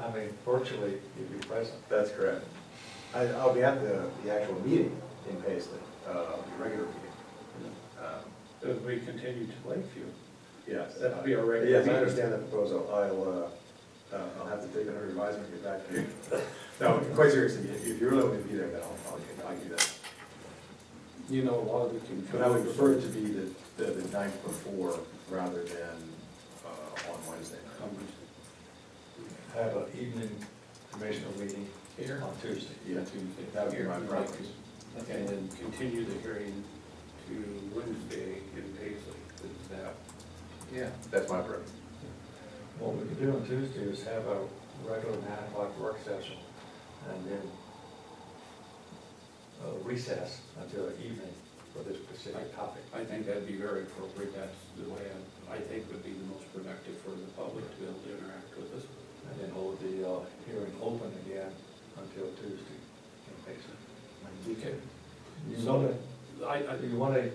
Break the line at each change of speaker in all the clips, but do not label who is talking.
I mean, virtually, you'd be present.
That's correct.
I, I'll be at the, the actual meeting in Paisley, uh, the regular meeting. Um,
It we continue to Lakeview.
Yes.
That'd be our regular
Yes, I
meeting.
understand the proposal. I'll, uh, uh, I'll have to take it under advisement and get back to you. No, quite seriously, if if you really want me to be there, then I'll, I'll, I'll do that.
You know, a lot of the can.
But I would prefer it to be the, the the night before rather than, uh, on Wednesday night.
I Have an evening commissioner meeting
Here.
on Tuesday.
Yeah,
Tuesday.
that would be my
Here.
preference.
And then continue the hearing to Wednesday in Paisley, is that?
Yeah. That's my preference.
What we could do on Tuesday is have a regular nine o'clock work session and then uh, recess until evening for this specific topic.
I think that'd be very appropriate, that's the way I, I think would be the most productive for the public to be able to interact with us.
And then hold the uh, hearing open again until Tuesday in Payson.
Okay.
You want it?
I, I,
Do you want a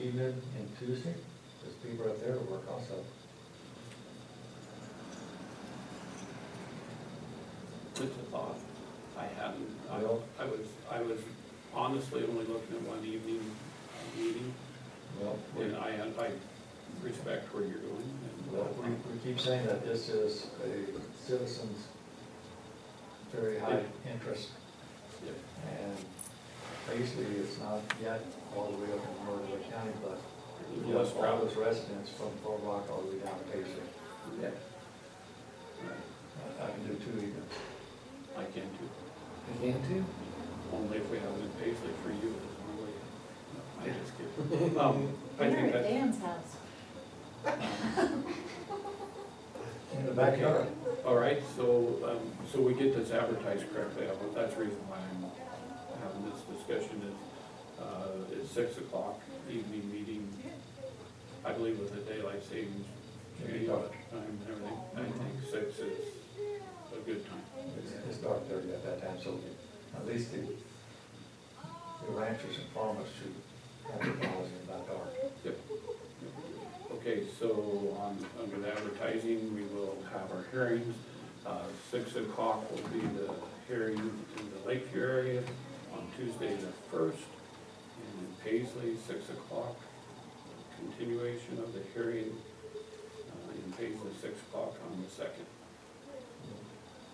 evening and Tuesday? There's people out there to work also.
it's a thought, I hadn't, I,
Well-
I was, I was honestly only looking at one evening uh, meeting,
Well, we,
and I, I respect where you're going. and-
well, we we keep saying that this is a citizen's very high interest.
Yeah.
And basically, it's not yet all the way up in Murray County, but we
Less
have all
travel.
those residents from Fort Rock all the way down to Payson.
Yeah.
I I can do two evenings.
I can do,
You can too?
only if we have it basically for you, it's only, I just kidding. Um, I
Dinner
think
at
that,
Dan's house.
In the backyard.
all right, so, um, so we get this advertised correctly, I want- that's the reason why I'm having this discussion is, uh, it's six o'clock evening meeting, I believe with the daylight savings.
It'll be
change
dark.
Time and everything, I think six is a good time.
It's, it's dark there at that time, so at least the, the ranchers and farmers should have the knowledge about dark.
Yep. Okay, so on, under the advertising, we will have our hearings. Uh, Six o'clock will be the hearing in the Lakeview area on Tuesday the first. And in Paisley, six o'clock, continuation of the hearing uh, in Paisley, six o'clock on the second.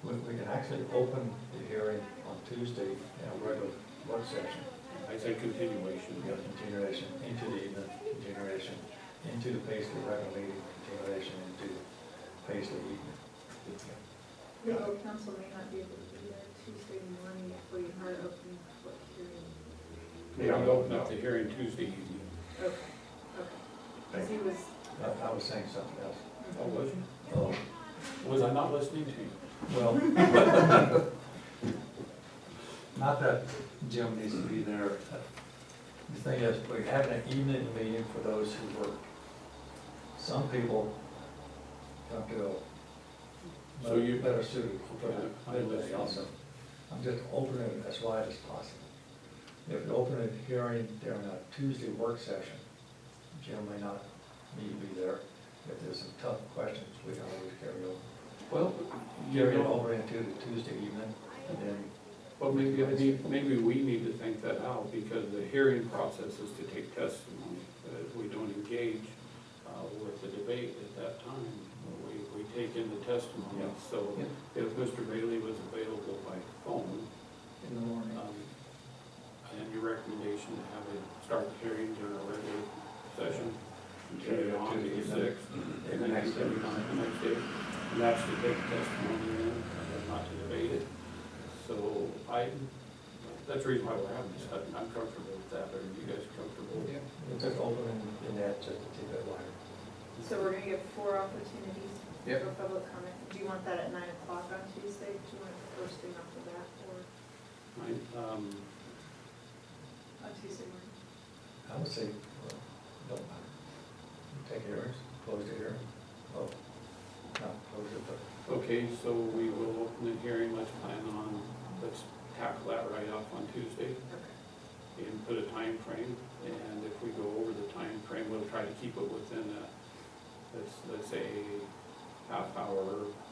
We, we can actually open the hearing on Tuesday in a regular work session.
I say continuation,
We got continuation into the evening, continuation into the Paisley regular meeting, continuation into Paisley evening.
Legal counsel may not be able to be there Tuesday morning if we are opening public hearing.
we will open up the hearing Tuesday evening.
Okay, okay. Because he was,
I, I was saying something else.
Oh, was
Oh,
you? Was I not listening to you?
well. Not that Jim needs to be there. The thing is, we're having an evening meeting for those who work. Some people don't feel
So you-
better suited for
Yeah, I
the midday
understand.
also. I'm just opening it as wide as possible. If we open a hearing during a Tuesday work session, Jim may not need to be there. If there's some tough questions, we can always carry over.
Well,
Carry it over into the Tuesday evening, and then,
Well, maybe, I need- maybe we need to think that out, because the hearing process is to take testimony. Uh, If we don't engage uh, with the debate at that time, we, we take in the testimony.
Yeah.
So if Mr. Bailey was available by phone,
In the morning.
um, and your recommendation to have it start the hearing during a regular session, continue on to the sixth, and then continue on to the next day. And that's to take testimony in, uh, not to debate it. So I, that's the reason why we're having this, I'm I'm comfortable with that, are you guys comfortable?
Yeah.
we'll just open in- in that just a tidbit wider.
so we're gonna give four opportunities
Yep.
for public comment. Do you want that at nine o'clock on Tuesday? Do you want it the first thing after that or
Right, um,
on Tuesday morning?
I would say, well, don't mind. Take hearings, close the hearing. Oh, not close it, but
Okay, so we will open the hearing, let's plan on, let's tackle that right off on Tuesday.
Okay.
and put a time frame, and if we go over the time frame, we'll try to keep it within a, let's, let's say, half hour,